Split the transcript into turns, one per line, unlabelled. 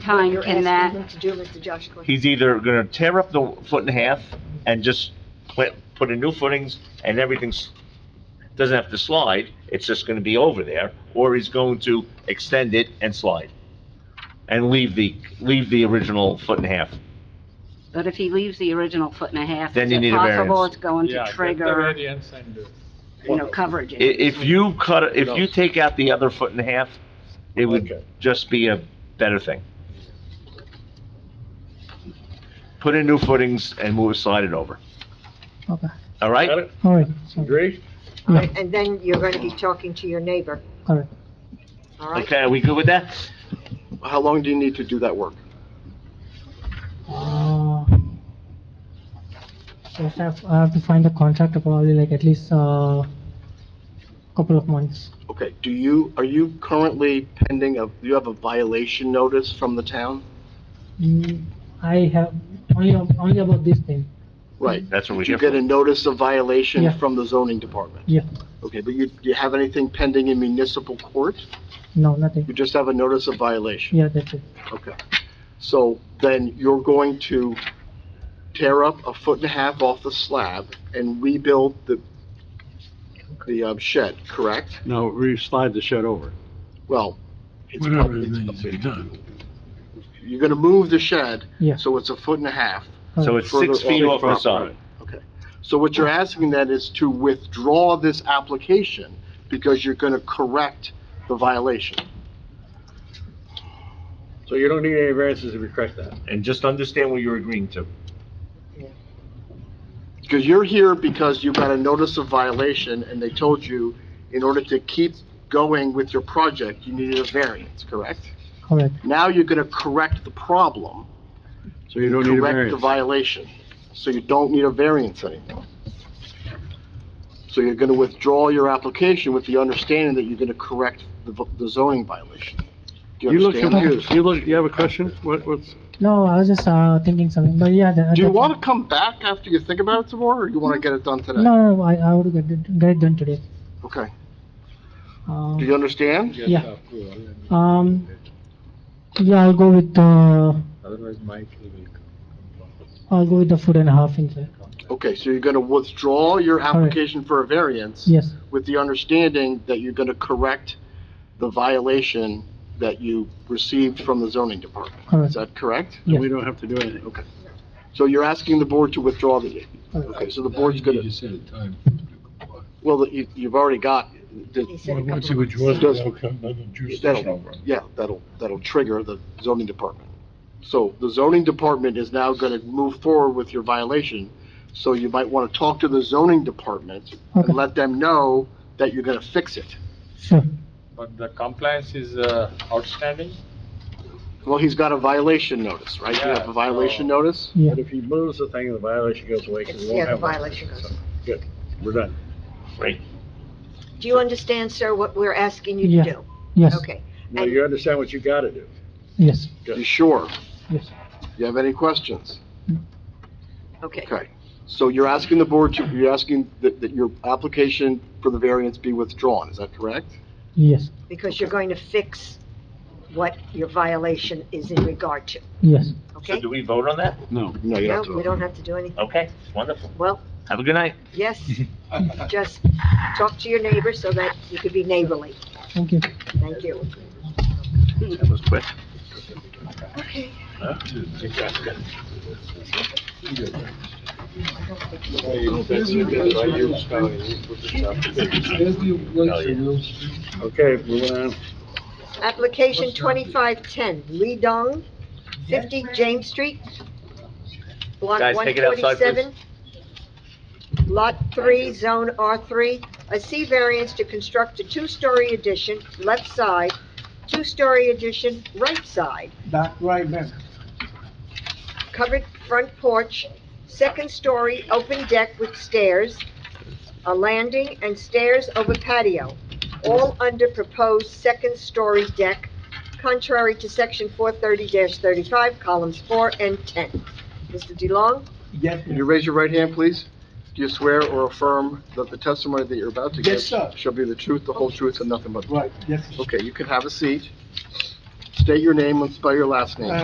time
You're
can that?
asking him to do, Mr. Josh Gordon.
He's either gonna tear up the foot and a half and just put, put in new footings and everything's, doesn't have to slide, it's just gonna be over there, or he's going to extend it and slide. And leave the, leave the original foot and a half.
But if he leaves the original foot and a half,
Then
is
you
it
need a
possible
variance.
it's going
Yeah,
to
get the
trigger,
variance and, uh,
you know, coverage?
I- if you cut, if you
knows?
take out the other foot and a half, it
Okay.
would just be a better thing. Put in new footings and move, slide it over,
Okay,
all
Got
right?
it?
all right,
Agree?
yeah,
And then you're going to be talking to your neighbor,
all right.
all right?
Okay, are we good with that?
How long do you need to do that work?
Uh, I have, I have to find a contractor probably like at least, uh, couple of months.
Okay, do you, are you currently pending a, you have a violation notice from the town?
Mm, I have, only, only about this thing,
Right.
That's what we're
Did you
here
get a
for.
notice of violation
Yeah.
from the zoning department?
yeah,
Okay, but you, do you have anything pending in municipal court?
no, nothing,
You just have a notice of violation?
yeah, that's it,
Okay. So then you're going to tear up a foot and a half off the slab and rebuild the, the um, shed, correct?
No, re-slide the shed over.
Well, it's
Whatever
probably,
it needs to be done.
you're gonna move the shed,
yeah.
so it's a foot and a half.
So
alright.
it's six feet off the side.
So what you're asking then is to withdraw this application because you're gonna correct the violation.
So you don't need any variances if you correct that.
And just understand what you're agreeing to.
Because you're here because you got a notice of violation and they told you in order to keep going with your project, you needed a variance, correct?
Correct,
Now you're gonna correct the problem,
So you don't need a
correct the
variance.
violation. So you don't need a variance anymore. So you're gonna withdraw your application with the understanding that you're gonna correct the v- the zoning violation. Do
You look
understand that?
confused. You look, you have a question? What, what's,
no, I was just, uh, thinking something, but yeah. that-
Do you
that's-
want to come back after you think about it some more, or you want to get it done today?
No, no, I, I would get it, get it done today,
Okay.
uh.
Do you understand?
Get
Yeah.
approval and
Um, yeah, I'll go with, uh,
Otherwise, Mike will come.
I'll go with the foot and a half inch, there.
Okay, so you're going to withdraw your application for a variance
yes,
with the understanding that you're going to correct the violation that you received from the zoning department. Is
correct,
that correct?
Yeah.
we don't have to do anything. Okay.
So you're asking the board to withdraw the,
correct.
okay, so the board's going to,
set a time.
well, that you, you've already got,
He
the-
said a couple
Once
of
you
months.
withdraw,
Does-
that'll come, that'll juice the
That'll-
shed over.
yeah, that'll, that'll trigger the zoning department. So the zoning department is now going to move forward with your violation, so you might want to talk to the zoning department
Okay.
and let them know that you're going to fix it.
sure,
But the compliance is uh, outstanding?
Well, he's got a violation notice, right? You have
Yeah,
a violation
so-
notice?
yeah,
if he moves the thing, the violation goes away,
It's- Yeah, the violation goes.
We're done.
Right.
Do you understand, sir, what we're asking you
Yeah.
to do?
yes,
Okay.
Now,
And-
you understand what you gotta do.
yes,
You sure?
yes,
You have any questions?
Okay.
Okay. So you're asking the board to, you're asking that, that your application for the variance be withdrawn, is that correct?
yes,
Because you're going to fix what your violation is in regard to,
yes.
So
okay?
do we vote on that?
No.
No,
No, we
you don't have to.
don't have to do anything.
Okay, wonderful.
Well,
Have a good night.
yes, just talk to your neighbor so that you could be neighborly.
Thank you.
Thank you.
That was quick.
Okay, moving on.
Application twenty-five ten, Lee Dong, fifty James Street, block
Guys,
one
take it outside,
forty-seven. Lot three, zone R three, a C variance to construct a two-story addition, left side, two-story addition, right side,
Back right then.
covered front porch, second story, open deck with stairs, a landing and stairs over patio, all under proposed second story deck, contrary to section four thirty thirty-five, columns four and ten. Mr. DeLong,
Yes,
Can you raise your right hand, please? Do you swear or affirm that the testimony that you're about to give
Yes, sir.
shall be the truth, the whole truth, and nothing but the truth?
right, yes.
Okay, you can have a seat. State your name and spell your last name.